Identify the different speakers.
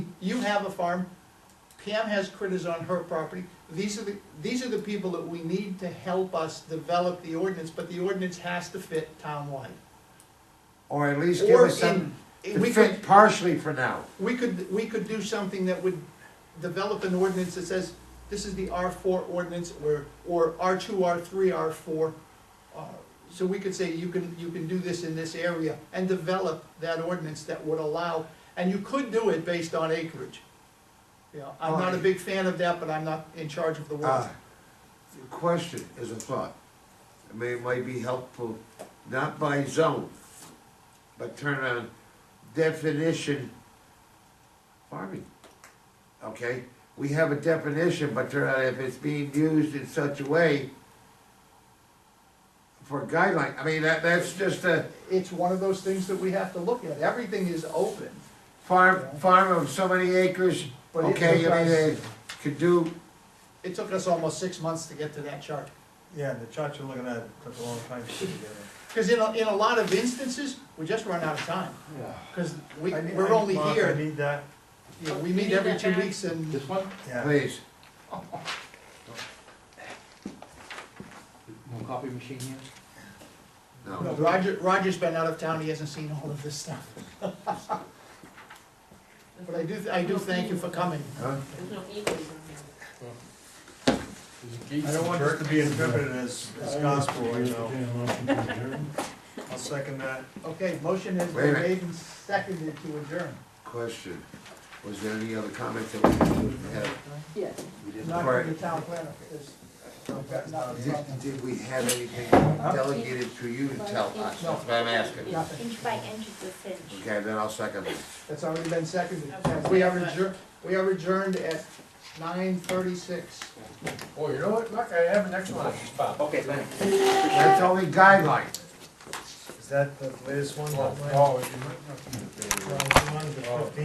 Speaker 1: you have a farm, Pam has critters on her property. These are the, these are the people that we need to help us develop the ordinance, but the ordinance has to fit townwide.
Speaker 2: Or at least give
Speaker 1: Or
Speaker 2: us
Speaker 1: in,
Speaker 2: some,
Speaker 1: we
Speaker 2: to
Speaker 1: could,
Speaker 2: fit partially for now.
Speaker 1: we could, we could do something that would develop an ordinance that says, this is the R four ordinance, or, or R two, R three, R four. Uh, So we could say, you can, you can do this in this area, and develop that ordinance that would allow, and you could do it based on acreage. You know, I'm not a
Speaker 2: Alright.
Speaker 1: big fan of that, but I'm not in charge of the world.
Speaker 2: Uh, Question is a thought. I mean, it might be helpful, not by zone, but turn on definition farming. Okay, we have a definition, but turn on if it's being used in such a way for guideline, I mean, that, that's just a
Speaker 1: It's one of those things that we have to look at, everything is open,
Speaker 2: farm, farm of so many acres.
Speaker 1: But it
Speaker 2: Okay, I mean, they
Speaker 3: does-
Speaker 2: could do
Speaker 1: it took us almost six months to get to that chart.
Speaker 3: Yeah, the chart you're looking at took a long time to put together.
Speaker 1: Because in a, in a lot of instances, we just run out of time, because we,
Speaker 3: I need-
Speaker 1: we're
Speaker 3: I-
Speaker 1: only
Speaker 3: Mark, I
Speaker 1: here,
Speaker 3: need that,
Speaker 1: you know, we
Speaker 4: You
Speaker 1: meet
Speaker 4: need
Speaker 1: every
Speaker 4: that
Speaker 1: two
Speaker 4: back?
Speaker 1: weeks and,
Speaker 5: This one?
Speaker 3: yeah.
Speaker 2: Please.
Speaker 5: No copy machine here?
Speaker 1: No,
Speaker 2: No.
Speaker 1: Roger, Roger's been out of town, he hasn't seen all of this stuff. But I do, I do thank you for coming.
Speaker 2: Huh?
Speaker 4: There's no eagles on here.
Speaker 3: I don't want this to be interpreted as, as gospel, you know. I'll second that.
Speaker 1: Okay, motion has
Speaker 2: Wait a
Speaker 1: been
Speaker 2: minute.
Speaker 1: made and seconded to adjourn.
Speaker 2: Question, was there any other comments that we had?
Speaker 4: Yes.
Speaker 5: We didn't.
Speaker 1: Not
Speaker 2: Right.
Speaker 1: from the town planner, because I've got nothing from
Speaker 2: Did,
Speaker 1: them.
Speaker 2: did we have anything delegated to you to tell us, that's what I'm asking.
Speaker 1: Nothing,
Speaker 6: Inch by inch is a cinch.
Speaker 2: Okay, then I'll second it.
Speaker 1: that's already been seconded.
Speaker 4: Okay.
Speaker 1: We are adjourned, we are adjourned at nine thirty-six.
Speaker 7: Oh, you know what, Look, I have an Oh, excellent one, Bob.
Speaker 5: Okay, thanks.
Speaker 2: That's only guideline.
Speaker 3: Is that the latest one?
Speaker 7: Oh,
Speaker 3: that went?
Speaker 7: oh, you might not be the baby.
Speaker 3: Well, the one with the
Speaker 7: Oh.
Speaker 3: 15